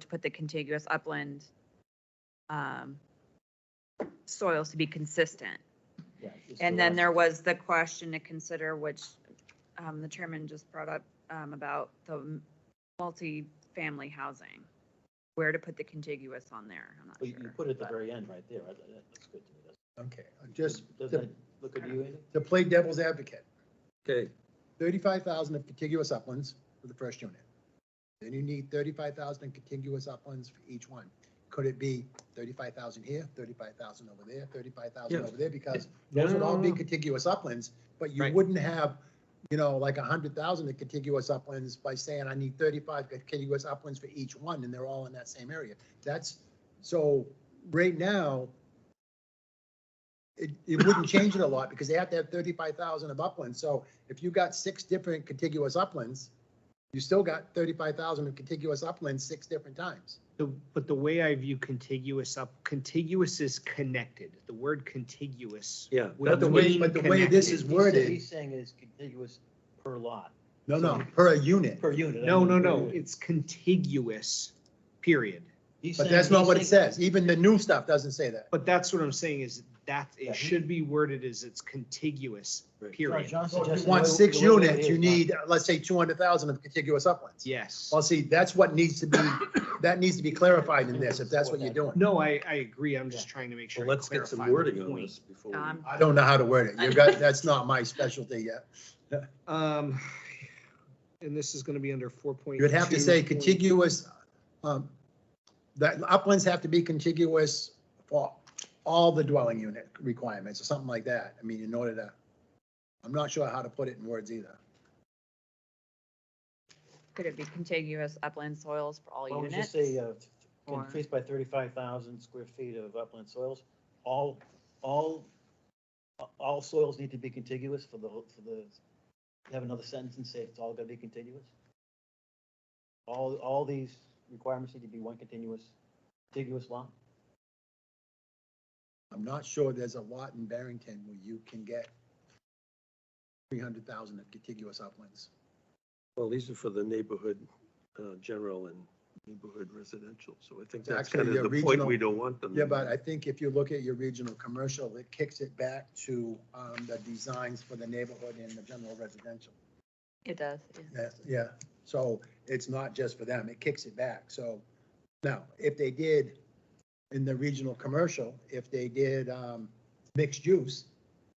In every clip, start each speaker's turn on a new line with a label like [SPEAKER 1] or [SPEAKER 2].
[SPEAKER 1] to put the contiguous upland um, soils to be consistent.
[SPEAKER 2] Yeah, it's
[SPEAKER 1] And
[SPEAKER 2] the
[SPEAKER 1] then
[SPEAKER 2] last-
[SPEAKER 1] there was the question to consider, which um, the chairman just brought up um, about the multi-family housing. Where to put the contiguous on there, I'm
[SPEAKER 2] But
[SPEAKER 1] not
[SPEAKER 2] you you
[SPEAKER 1] sure.
[SPEAKER 2] put it at the very end, right there, right? That- that's good to me. That's-
[SPEAKER 3] Okay, uh, just
[SPEAKER 2] Doesn't
[SPEAKER 3] to
[SPEAKER 2] it look good to you, Andy?
[SPEAKER 3] to play devil's advocate,
[SPEAKER 4] Okay,
[SPEAKER 3] thirty-five thousand of contiguous uplands for the first unit. Then you need thirty-five thousand in contiguous uplands for each one. Could it be thirty-five thousand here, thirty-five thousand over there, thirty-five thousand
[SPEAKER 4] Yeah.
[SPEAKER 3] over there? Because
[SPEAKER 4] No,
[SPEAKER 3] those would
[SPEAKER 4] no,
[SPEAKER 3] all
[SPEAKER 4] no,
[SPEAKER 3] be
[SPEAKER 2] Oh.
[SPEAKER 4] no.
[SPEAKER 3] contiguous uplands, but you
[SPEAKER 4] Right.
[SPEAKER 3] wouldn't have, you know, like a hundred thousand in contiguous uplands by saying, I need thirty-five contiguous uplands for each one, and they're all in that same area. That's, so right now, it, it wouldn't change it a lot because they have to have thirty-five thousand of uplands. So if you got six different contiguous uplands, you still got thirty-five thousand of contiguous uplands six different times.
[SPEAKER 5] The, but the way I view contiguous up, contiguous is connected. The word contiguous.
[SPEAKER 4] yeah.
[SPEAKER 5] would
[SPEAKER 3] But the way,
[SPEAKER 5] mean
[SPEAKER 3] but the way this is
[SPEAKER 2] He's- he's
[SPEAKER 5] connected.
[SPEAKER 2] saying-
[SPEAKER 3] worded,
[SPEAKER 2] He's saying is contiguous per lot,
[SPEAKER 3] no, no, per unit.
[SPEAKER 2] per unit. I
[SPEAKER 5] No,
[SPEAKER 2] mean,
[SPEAKER 5] no,
[SPEAKER 2] per
[SPEAKER 5] no,
[SPEAKER 2] unit.
[SPEAKER 5] it's contiguous, period.
[SPEAKER 2] He's
[SPEAKER 3] But
[SPEAKER 2] saying-
[SPEAKER 3] that's not
[SPEAKER 2] he's
[SPEAKER 3] what it
[SPEAKER 2] saying-
[SPEAKER 3] says. Even the new stuff doesn't say that.
[SPEAKER 5] But that's what I'm saying is that
[SPEAKER 2] Yeah.
[SPEAKER 5] it should be worded as it's contiguous,
[SPEAKER 4] Right.
[SPEAKER 2] John-
[SPEAKER 5] period.
[SPEAKER 2] John
[SPEAKER 3] So if
[SPEAKER 2] suggested
[SPEAKER 3] you want
[SPEAKER 2] the way-
[SPEAKER 3] six
[SPEAKER 2] the way it
[SPEAKER 3] units, you
[SPEAKER 2] is,
[SPEAKER 3] need, uh, let's say, two hundred thousand of contiguous uplands.
[SPEAKER 5] Yes.
[SPEAKER 3] Well, see, that's what needs to be, that needs to be clarified in this, if that's what you're doing.
[SPEAKER 5] No, I, I agree. I'm just trying to make sure.
[SPEAKER 4] Well,
[SPEAKER 5] I
[SPEAKER 4] let's get some
[SPEAKER 5] clarify the
[SPEAKER 4] wording on
[SPEAKER 5] point.
[SPEAKER 4] this before we.
[SPEAKER 1] Um,
[SPEAKER 3] I don't know how to word it. You got, that's not my specialty yet.
[SPEAKER 5] Um, and this is gonna be under four point.
[SPEAKER 3] You'd have to say contiguous, um, that uplands have to be contiguous for all the dwelling unit requirements or something like that. I mean, in order to, I'm not sure how to put it in words either.
[SPEAKER 1] Could it be contiguous upland soils for all
[SPEAKER 2] Why don't we just
[SPEAKER 1] units?
[SPEAKER 2] say, uh,
[SPEAKER 1] Or-
[SPEAKER 2] increased by thirty-five thousand square feet of upland soils, all, all, all soils need to be contiguous for the, for the, have another sentence and say it's all gonna be contiguous? All, all these requirements need to be one continuous, contiguous lot?
[SPEAKER 3] I'm not sure there's a lot in Barrington where you can get three hundred thousand of contiguous uplands.
[SPEAKER 4] Well, these are for the neighborhood, uh, general and neighborhood residential, so I think
[SPEAKER 3] It's
[SPEAKER 4] that's
[SPEAKER 3] actually
[SPEAKER 4] kind
[SPEAKER 3] your
[SPEAKER 4] of the point
[SPEAKER 3] regional-
[SPEAKER 4] we don't want them.
[SPEAKER 3] Yeah, but I think if you look at your regional commercial, it kicks it back to, um, the designs for the neighborhood and the general residential.
[SPEAKER 1] It does, yeah.
[SPEAKER 3] Yes, yeah, so it's not just for them, it kicks it back, so. Now, if they did in the regional commercial, if they did, um, mixed use,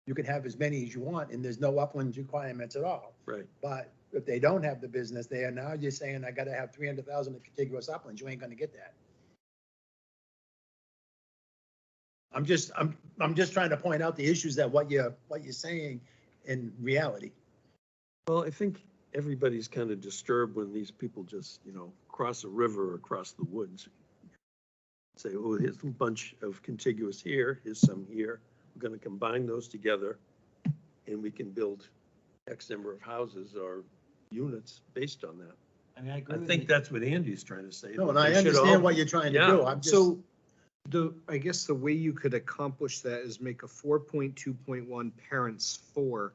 [SPEAKER 3] you could have as many as you want, and there's no upland requirements at all.
[SPEAKER 4] Right,
[SPEAKER 3] But if they don't have the business there, now you're saying I gotta have three hundred thousand of contiguous uplands, you ain't gonna get that. I'm just, I'm, I'm just trying to point out the issues that what you're, what you're saying in reality.
[SPEAKER 4] well, I think everybody's kind of disturbed when these people just, you know, cross a river or across the woods. Say, oh, here's a bunch of contiguous here, here's some here, we're gonna combine those together, and we can build X number of houses or units based on that.
[SPEAKER 2] I mean, I agree
[SPEAKER 4] I
[SPEAKER 2] with
[SPEAKER 4] think
[SPEAKER 2] you.
[SPEAKER 4] that's what Andy's trying to say.
[SPEAKER 3] No,
[SPEAKER 4] that
[SPEAKER 3] and I
[SPEAKER 4] they should all-
[SPEAKER 3] understand what you're trying to
[SPEAKER 4] Yeah.
[SPEAKER 3] do, I'm just.
[SPEAKER 5] So the, I guess the way you could accomplish that is make a four point two point one parents four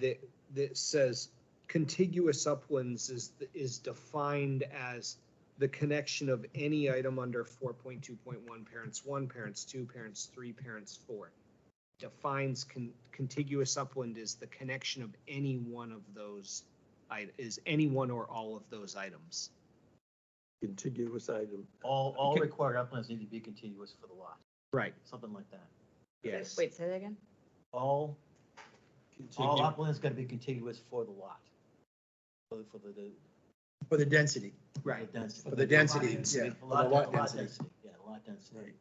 [SPEAKER 5] that, that says contiguous uplands is, is defined as the connection of any item under four point two point one, parents one, parents two, parents three, parents four. Defines con- contiguous upland is the connection of any one of those, i- is any one or all of those items.
[SPEAKER 4] contiguous item.
[SPEAKER 2] All, all
[SPEAKER 4] Okay.
[SPEAKER 2] required uplands need to be contiguous for the lot,
[SPEAKER 5] Right,
[SPEAKER 2] something like that.
[SPEAKER 5] yes.
[SPEAKER 1] Wait, say that again?
[SPEAKER 2] All, all uplands gotta be contiguous for the lot. For the, for the- the,
[SPEAKER 3] For the density,
[SPEAKER 2] the
[SPEAKER 5] Right.
[SPEAKER 2] density.
[SPEAKER 3] for the density,
[SPEAKER 5] density.
[SPEAKER 3] yeah,
[SPEAKER 2] A
[SPEAKER 3] for
[SPEAKER 2] lot, a
[SPEAKER 3] the lot
[SPEAKER 2] lot
[SPEAKER 3] density.
[SPEAKER 2] density, yeah, a lot density.
[SPEAKER 4] Right,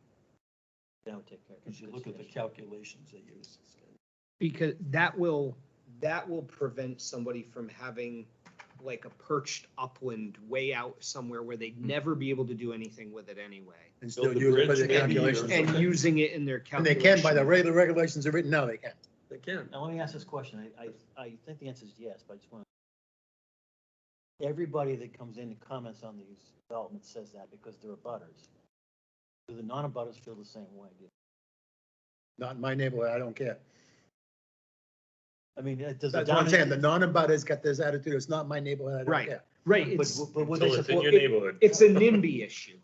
[SPEAKER 2] That would take care of.
[SPEAKER 4] because you look at the
[SPEAKER 2] consideration.
[SPEAKER 4] calculations they use. it's kind
[SPEAKER 5] because that will, that will prevent somebody from having like a perched upland way out somewhere where they'd never be able to do anything with it anyway.
[SPEAKER 3] And
[SPEAKER 4] Build
[SPEAKER 3] still
[SPEAKER 4] the
[SPEAKER 3] do it for
[SPEAKER 4] bridge
[SPEAKER 3] the
[SPEAKER 4] maybe, or
[SPEAKER 3] calculations.
[SPEAKER 4] something.
[SPEAKER 5] And
[SPEAKER 3] And
[SPEAKER 5] using it in their
[SPEAKER 3] they
[SPEAKER 5] calculation.
[SPEAKER 3] can, by the way the regulations are written now, they can.
[SPEAKER 4] of- They can.
[SPEAKER 2] Now, let me ask this question. I, I, I think the answer is yes, but I just want to. Everybody that comes in and comments on these developments says that because they're abutters. Do the non-abutters feel the same way?
[SPEAKER 3] Not in my neighborhood, I don't care.
[SPEAKER 2] I mean, it does.
[SPEAKER 3] That's what I'm saying, the non-abutters got this attitude, it's not my neighborhood, I don't
[SPEAKER 5] Right.
[SPEAKER 3] care.
[SPEAKER 5] Right,
[SPEAKER 2] But,
[SPEAKER 5] it's,
[SPEAKER 2] but would they
[SPEAKER 6] Until it's in
[SPEAKER 2] support,
[SPEAKER 6] your
[SPEAKER 5] it-
[SPEAKER 6] neighborhood.
[SPEAKER 5] it's a NIMBY issue.